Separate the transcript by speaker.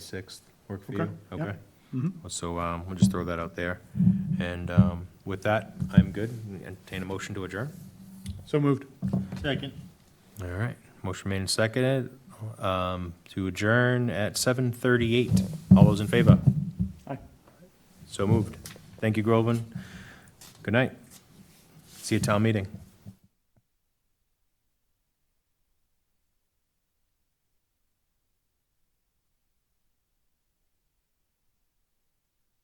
Speaker 1: 6th work for
Speaker 2: Okay,
Speaker 1: you?
Speaker 2: yeah.
Speaker 1: Okay.
Speaker 2: Mhm.
Speaker 1: So um, we'll just throw that out there. And um, with that, I'm good. Entertain a motion to adjourn.
Speaker 2: So moved.
Speaker 3: Second.
Speaker 1: All right. Motion made and seconded um, to adjourn at 7:38. All those in favor?
Speaker 2: Aye.
Speaker 1: So moved. Thank you, Groveland. Good night. See you at town meeting.